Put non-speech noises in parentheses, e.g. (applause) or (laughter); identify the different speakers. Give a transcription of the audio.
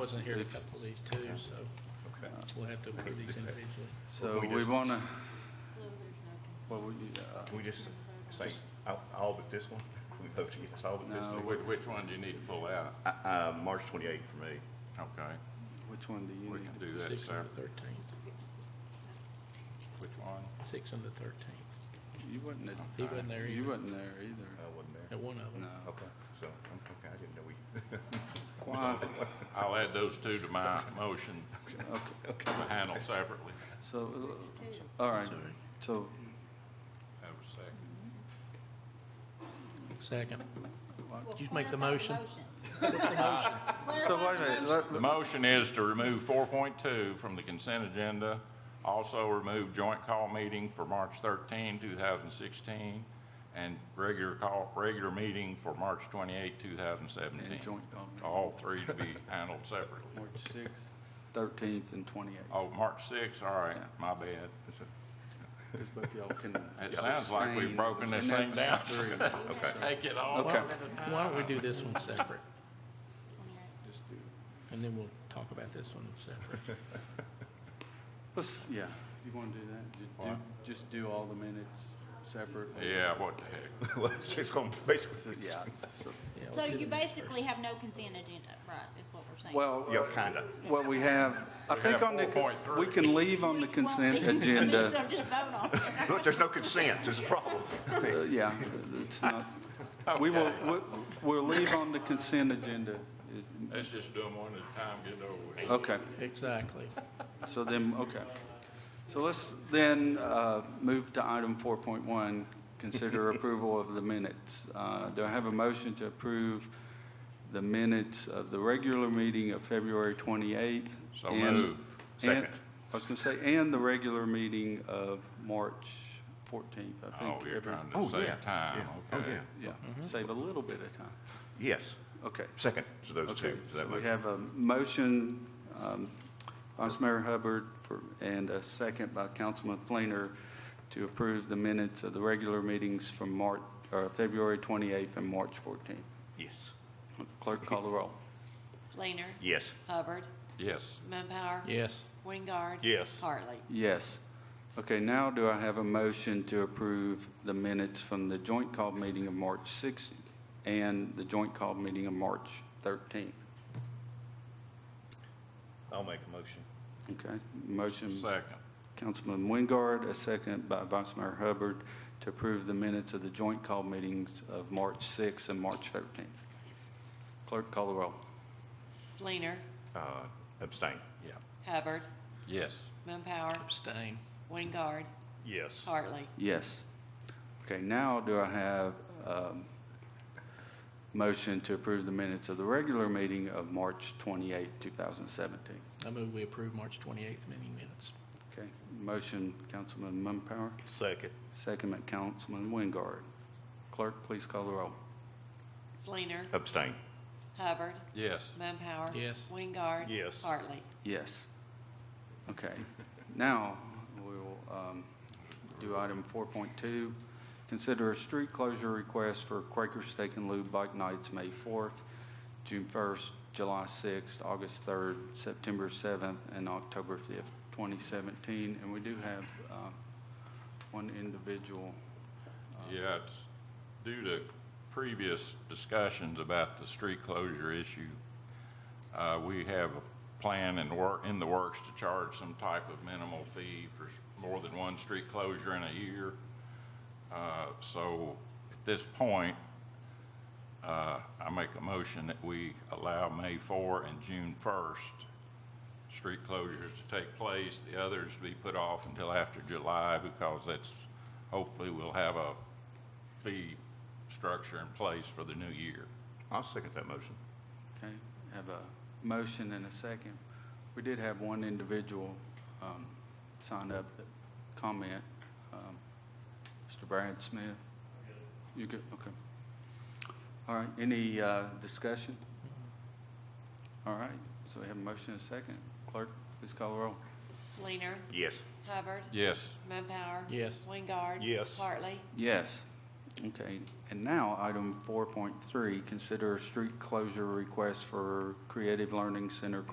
Speaker 1: Wasn't here to couple these two, so
Speaker 2: Okay.
Speaker 1: we'll have to approve these individually.
Speaker 3: So
Speaker 2: we
Speaker 3: we
Speaker 2: just-
Speaker 3: want to,
Speaker 4: Well, there's no con-
Speaker 3: what would you, uh,
Speaker 2: Can we just say, all, all but this one? Can we vote against all but this
Speaker 3: No,
Speaker 2: one?
Speaker 5: Which, Oh, which one do you need to pull out?
Speaker 2: Uh, uh, March twenty-eighth for me.
Speaker 5: Okay,
Speaker 3: which one do you
Speaker 5: we
Speaker 3: need?
Speaker 5: can do that
Speaker 1: Six and the
Speaker 5: separate.
Speaker 1: thirteenth,
Speaker 5: Which one?
Speaker 1: six and the thirteenth.
Speaker 3: You wasn't,
Speaker 5: Oh,
Speaker 3: at-
Speaker 1: He wasn't there
Speaker 3: you
Speaker 1: either,
Speaker 3: wasn't there
Speaker 2: I
Speaker 3: either.
Speaker 2: Uh, wasn't there.
Speaker 1: at one of them.
Speaker 3: No.
Speaker 2: Okay, so, um, okay, I didn't know we, (laughs)
Speaker 5: (laughs)
Speaker 3: Why?
Speaker 5: I'll add those two to my motion to handle separately.
Speaker 3: So, uh, all right.
Speaker 1: Sorry.
Speaker 3: So
Speaker 5: Have a second.
Speaker 1: Second.
Speaker 4: Well,
Speaker 1: You make the
Speaker 4: clarify
Speaker 1: motion. (laughs)
Speaker 3: So
Speaker 4: Clarify
Speaker 3: wait a
Speaker 4: the
Speaker 3: minute,
Speaker 4: motion.
Speaker 3: let-
Speaker 5: The motion is to remove four point two from the consent agenda. Also remove joint call meeting for March 13, 2016, and regular call, regular meeting for March 28, thousand seventeen.
Speaker 3: And joint call meeting.
Speaker 5: All three to be handled separately.
Speaker 3: March sixth, thirteenth, and twenty-eighth.
Speaker 5: Oh, March 6. all right,
Speaker 3: Yeah.
Speaker 5: my bad.
Speaker 3: Because both y'all
Speaker 5: (laughs)
Speaker 3: can.
Speaker 5: It sounds like we've
Speaker 3: abstain
Speaker 5: broken
Speaker 3: for
Speaker 5: this
Speaker 3: the
Speaker 5: thing
Speaker 3: next
Speaker 5: down. (laughs)
Speaker 3: three.
Speaker 2: okay.
Speaker 5: Take it all
Speaker 3: Okay.
Speaker 5: up.
Speaker 1: Why don't we do this one
Speaker 4: (laughs)
Speaker 1: separate,
Speaker 3: Just do-
Speaker 1: and then we'll talk about this one separate?
Speaker 3: Let's, yeah, you want to do that? Ju- do-
Speaker 5: What?
Speaker 3: Just do all the minutes separately.
Speaker 5: Yeah, what the heck?
Speaker 2: well, it's just gonna basically,
Speaker 3: Yeah. so-
Speaker 1: Yeah, let's
Speaker 4: So
Speaker 1: do
Speaker 4: you
Speaker 1: them.
Speaker 4: basically have no consent agenda, right, is what we're saying?
Speaker 3: Well.
Speaker 2: yeah,
Speaker 3: uh,
Speaker 2: kinda.
Speaker 3: What we have, I
Speaker 5: We
Speaker 3: think
Speaker 5: have
Speaker 3: on the,
Speaker 5: 4.3.
Speaker 3: we can leave on the
Speaker 4: (laughs)
Speaker 3: consent agenda.
Speaker 4: So just vote on it.
Speaker 2: Look, there's no consent, there's a (laughs) problem.
Speaker 3: Uh, Yeah, it's not, we will, we- we'll leave on the consent agenda.
Speaker 5: Let's just do them one at a time, get it over with.
Speaker 3: Okay,
Speaker 1: Exactly.
Speaker 3: so then, okay. So let's then uh, move to item 4.1,
Speaker 5: (laughs)
Speaker 3: consider approval of the minutes. Uh, Do I have a motion to approve the minutes of the regular meeting of February 28th?
Speaker 5: So
Speaker 3: and-
Speaker 5: moved.
Speaker 3: and-
Speaker 2: Second.
Speaker 3: I was going to say, and the regular meeting of March 14th, I
Speaker 5: Oh,
Speaker 3: think.
Speaker 5: you're
Speaker 3: every-
Speaker 5: trying to save time,
Speaker 2: Oh,
Speaker 5: okay.
Speaker 2: yeah.
Speaker 3: Yeah,
Speaker 5: Mm-hmm.
Speaker 3: save a little bit of time.
Speaker 2: Yes,
Speaker 3: Okay.
Speaker 2: second to those
Speaker 3: Okay,
Speaker 2: two. Is
Speaker 3: so
Speaker 2: that
Speaker 3: we
Speaker 2: motion?
Speaker 3: have a motion, um, Vice Mayor Hubbard, for- and a second by Councilman Fleener to approve the minutes of the regular meetings from March, or February 28th and March 14th.
Speaker 2: Yes,
Speaker 3: Clerk call the roll.
Speaker 6: Fleener.
Speaker 2: yes.
Speaker 6: Hubbard.
Speaker 5: Yes,
Speaker 6: Mumpower.
Speaker 1: Yes,
Speaker 6: Wingard.
Speaker 5: Yes.
Speaker 6: Hartley.
Speaker 3: Yes. Okay, now do I have a motion to approve the minutes from the joint call meeting of March 6th and the joint call meeting of March 13th?
Speaker 2: I'll make a motion.
Speaker 3: Okay, motion
Speaker 5: second.
Speaker 3: Councilman Wingard, a second by Vice Mayor Hubbard, to approve the minutes of the joint call meetings of March 6th and March 13th. Clerk, call the roll.
Speaker 6: Fleener.
Speaker 2: Uh, abstain.
Speaker 5: Yeah.
Speaker 6: Hubbard.
Speaker 5: Yes.
Speaker 6: Mumpower.
Speaker 1: abstain.
Speaker 6: Wingard.
Speaker 2: Yes.
Speaker 6: Hartley.
Speaker 3: Yes. Okay, now do I have um, motion to approve the minutes of the regular meeting of March 28th, 2017?
Speaker 1: I move we approve March twenty-eighth meeting minutes.
Speaker 3: Okay, motion, Councilman Mumpower,
Speaker 2: Second.
Speaker 3: second by Councilman Wingard. Clerk, please call the roll.
Speaker 6: Fleener.
Speaker 2: Abstain.
Speaker 6: Hubbard.
Speaker 5: Yes.
Speaker 6: Mumpower.
Speaker 1: Yes.
Speaker 6: Wingard.
Speaker 2: Yes.
Speaker 6: Hartley.
Speaker 3: Yes. Okay. Now, we'll um, do item 4.2. Consider a street closure request for Quaker Steak and Lube Bike Nights, May 4th, June 1st, July 6th, August 3rd, September 7th, and October 5th, 2017. And we do have uh, one individual.
Speaker 5: Yeah, it's due to previous discussions about the street closure issue. Uh, we have a plan and work, in the works to charge some type of minimal fee for s- more than one street closure in a year. Uh, so at this point, uh, I make a motion that we allow May 4 and June 1st street closures to take place, the others be put off until after July because that's, hopefully we'll have a fee structure in place for the new year.
Speaker 2: I'll second that motion.
Speaker 3: Okay, have a motion and a second. We did have one individual um, sign up, that comment, um, Mr. Brad Smith. You good, okay. All right, any uh, discussion? All right, so we have a motion and a second. Clerk, please call the roll.
Speaker 6: Fleener.
Speaker 2: Yes.
Speaker 6: Hubbard.
Speaker 5: Yes,
Speaker 6: Mumpower.
Speaker 1: Yes.
Speaker 6: Wingard.
Speaker 2: Yes.
Speaker 6: Hartley.
Speaker 3: Yes. Okay, and now item 4.3, consider a street closure request for Creative Learning Center